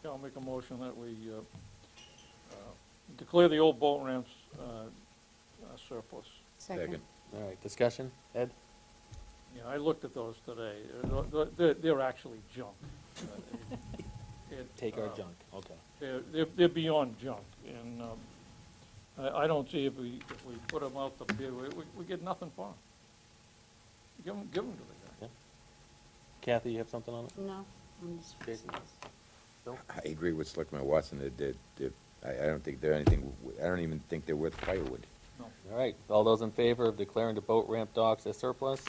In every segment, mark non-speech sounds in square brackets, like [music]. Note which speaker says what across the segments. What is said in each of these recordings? Speaker 1: Okay, I'll make a motion that we uh, uh, declare the old boat ramps uh, uh, surplus.
Speaker 2: Second.
Speaker 3: All right, discussion, Ed?
Speaker 1: Yeah, I looked at those today. They're- They're, they're- they're actually junk. Uh, it-
Speaker 3: Take our
Speaker 1: uh,
Speaker 3: junk, okay.
Speaker 1: They're, they're- they're beyond junk, and um, I, I don't see if we, if we put them out to bid, we, we- we get nothing for them. Give them, to the guy.
Speaker 3: Kathy, you have something on it?
Speaker 2: No, I'm just fixing this.
Speaker 4: I agree with Selectman Watson, that, that, that, I, I don't think they're anything, w- I don't even think they're worth firewood.
Speaker 1: No.
Speaker 3: All right, all those in favor of declaring the boat ramp docks as surplus?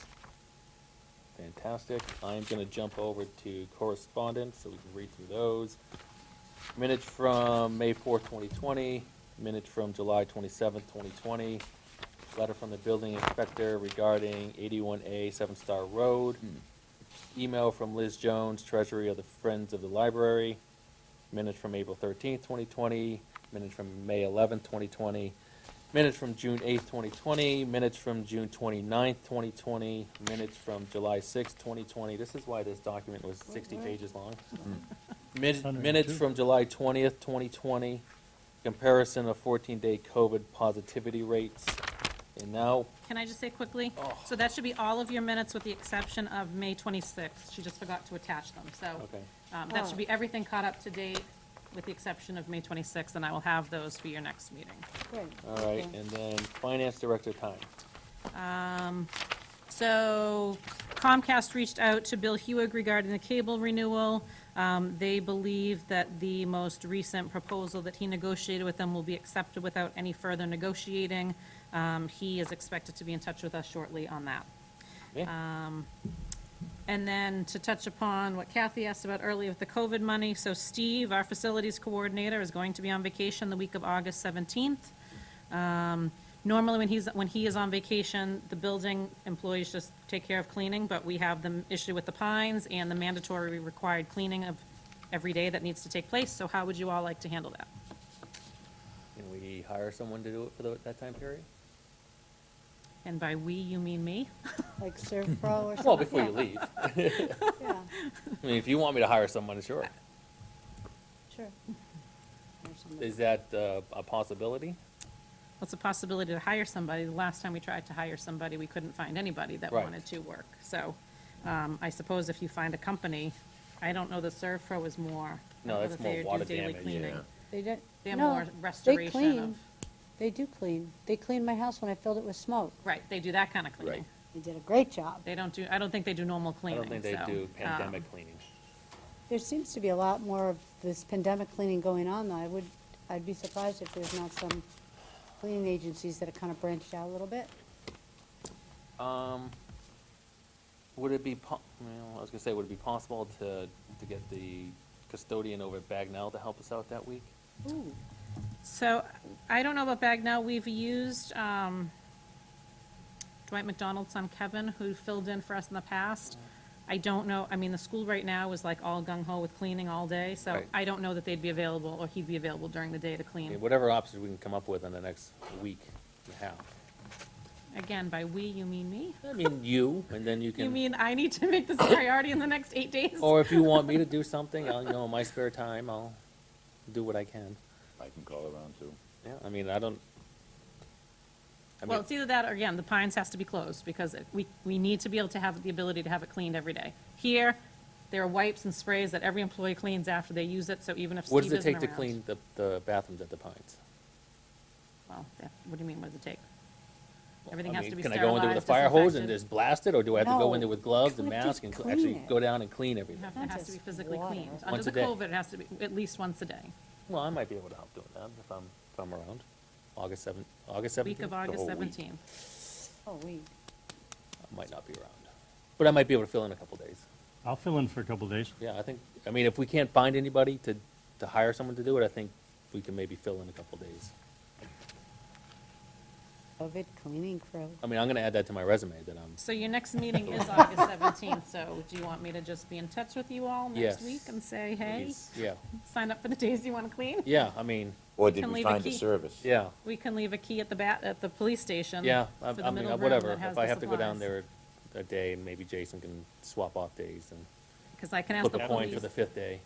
Speaker 3: Fantastic. I'm gonna jump over to correspondence, so we can read through those. Minutes from May fourth, twenty twenty, minutes from July twenty-seventh, twenty twenty, letter from the building inspector regarding eighty-one A Seven Star Road, email from Liz Jones, treasury of the Friends of the Library, minutes from April thirteenth, twenty twenty, minutes from May eleventh, twenty twenty, Minutes from June eighth, twenty twenty, minutes from June twenty-ninth, twenty twenty, minutes from July sixth, twenty twenty. This is why this document was sixty
Speaker 2: Mhm.
Speaker 3: pages long. Min- Minutes from July twentieth, twenty twenty, comparison of fourteen-day COVID positivity rates. And now,
Speaker 5: Can I just say quickly? So that should be all of your minutes with the exception of May 26th. She just forgot to attach them, so
Speaker 3: okay,
Speaker 5: um, that
Speaker 2: Oh.
Speaker 5: should be everything caught up to date with the exception of May 26th, and I will have those for your next meeting.
Speaker 2: Great.
Speaker 3: all
Speaker 2: Okay.
Speaker 3: right, and then finance director time.
Speaker 5: Uh, So Comcast reached out to Bill Hewig regarding the cable renewal. Um, They believe that the most recent proposal that he negotiated with them will be accepted without any further negotiating. Um, He is expected to be in touch with us shortly on that.
Speaker 3: Okay?
Speaker 5: And then to touch upon what Kathy asked about earlier with the COVID money, so Steve, our facilities coordinator, is going to be on vacation the week of August 17th. Um, Normally, when he's, when he is on vacation, the building employees just take care of cleaning, but we have the issue with the pines and the mandatory required cleaning of every day that needs to take place, so how would you all like to handle that?
Speaker 3: Can we hire someone to do it for tho- that time period?
Speaker 5: And by "we," you mean me?
Speaker 2: Like Surf Pro or something?
Speaker 3: [laughs] Well, before you leave. I
Speaker 2: Yeah,
Speaker 3: mean, if you want me to hire someone, sure.
Speaker 5: [laughs]
Speaker 2: sure. Or something.
Speaker 3: Is that uh, a possibility?
Speaker 5: What's the possibility to hire somebody? The last time we tried to hire somebody, we couldn't find anybody that
Speaker 3: Right.
Speaker 5: wanted to work. So um, I suppose if you find a company, I don't know that Servpro is more. I
Speaker 3: No,
Speaker 5: know
Speaker 3: that's
Speaker 5: that
Speaker 3: more
Speaker 5: they do
Speaker 3: water
Speaker 5: daily
Speaker 3: damage,
Speaker 5: cleaning.
Speaker 3: yeah.
Speaker 2: They don't,
Speaker 5: They have
Speaker 2: no,
Speaker 5: more
Speaker 2: they
Speaker 5: restoration
Speaker 2: clean.
Speaker 5: of,
Speaker 2: They do clean. They cleaned my house when I filled it with smoke.
Speaker 5: right, they do that kind of cleaning.
Speaker 4: Right.
Speaker 2: They did a great job.
Speaker 5: They don't do, I don't think they do normal
Speaker 3: I
Speaker 5: cleaning.
Speaker 3: don't think they
Speaker 5: so,
Speaker 3: do
Speaker 5: um,
Speaker 3: pandemic cleaning.
Speaker 2: There seems to be a lot more of this pandemic cleaning going on, though. I would, I'd be surprised if there's not some cleaning agencies that have kind of branched out a little bit.
Speaker 3: Um, would it be po- well, I was gonna say, would it be possible to, to get the custodian over at Bagnell to help us out that week?
Speaker 2: Ooh,
Speaker 5: So I don't know about Bagnell. We've used um, Dwight McDonald's son Kevin, who filled in for us in the past. I don't know, I mean, the school right now is like all gung ho with cleaning all day, so
Speaker 3: Right.
Speaker 5: I don't know that they'd be available or he'd be available during the day to
Speaker 3: I mean,
Speaker 5: clean.
Speaker 3: whatever options we can come up with in the next week and a half.
Speaker 5: Again, by we, you mean me?
Speaker 3: I mean, you, and then you
Speaker 5: You
Speaker 3: can,
Speaker 5: mean I need to make this a priority in the next eight days?
Speaker 3: or if you want me to do something, I'll, you know, in my spare time, I'll do what I can.
Speaker 4: I can call around too.
Speaker 3: Yeah, I mean, I don't. I
Speaker 5: Well,
Speaker 3: mean,
Speaker 5: it's either that or, again, the Pines has to be closed because it- we, we need to be able to have the ability to have it cleaned every day. Here, there are wipes and sprays that every employee cleans after they use it, so even if Steve
Speaker 3: what does
Speaker 5: isn't
Speaker 3: it take to
Speaker 5: around-
Speaker 3: clean the, the bathrooms at the Pines?
Speaker 5: Well, yeah, what do you mean, what does it take?
Speaker 3: Well,
Speaker 5: Everything
Speaker 3: I
Speaker 5: has
Speaker 3: mean,
Speaker 5: to be
Speaker 3: Can I go in there with a fire hose and
Speaker 5: sterilized,
Speaker 3: just blast it, or do I have to go in
Speaker 2: No,
Speaker 3: there with gloves and
Speaker 2: you have to
Speaker 3: mask and cl-
Speaker 2: clean
Speaker 3: actually
Speaker 2: it.
Speaker 3: go down and clean everything?
Speaker 5: You have-
Speaker 2: Not
Speaker 5: It has to be
Speaker 2: just
Speaker 5: physically
Speaker 2: water.
Speaker 5: cleaned. Under
Speaker 3: Once
Speaker 5: the
Speaker 3: a day.
Speaker 5: COVID, it has to be at least once a day.
Speaker 3: Well, I might be able to help doing that if I'm, if I'm around. August seventh, August seventeenth?
Speaker 5: Week of August 17th.
Speaker 2: oh, we,
Speaker 3: I might not be around. But I might be able to fill in a couple days.
Speaker 6: I'll fill in for a couple of days.
Speaker 3: Yeah, I think, I mean, if we can't find anybody to, to hire someone to do it, I think we can maybe fill in a couple days.
Speaker 2: COVID cleaning crew.
Speaker 3: I mean, I'm gonna add that to my resume that I'm,
Speaker 5: So
Speaker 3: [laughs]
Speaker 5: your next meeting is August 17th, so do you want me to just be in touch with you all next
Speaker 3: Yes.
Speaker 5: week and say, hey,
Speaker 3: Please, yeah,
Speaker 5: sign up for the days you want to clean?
Speaker 3: yeah, I mean,
Speaker 4: Or did
Speaker 5: Can
Speaker 4: we
Speaker 5: leave a
Speaker 4: find a
Speaker 5: key.
Speaker 4: service?
Speaker 3: yeah,
Speaker 5: We can leave a key at the bat, at the police station.
Speaker 3: yeah, I
Speaker 5: Um, for the
Speaker 3: I mean, uh,
Speaker 5: middle room
Speaker 3: whatever.
Speaker 5: that has
Speaker 3: If
Speaker 5: the
Speaker 3: I have to go down
Speaker 5: supplies.
Speaker 3: there a day, and maybe Jason can swap off days and
Speaker 5: Because I can ask
Speaker 3: flip
Speaker 5: the
Speaker 3: a coin
Speaker 5: police.
Speaker 3: for the fifth day.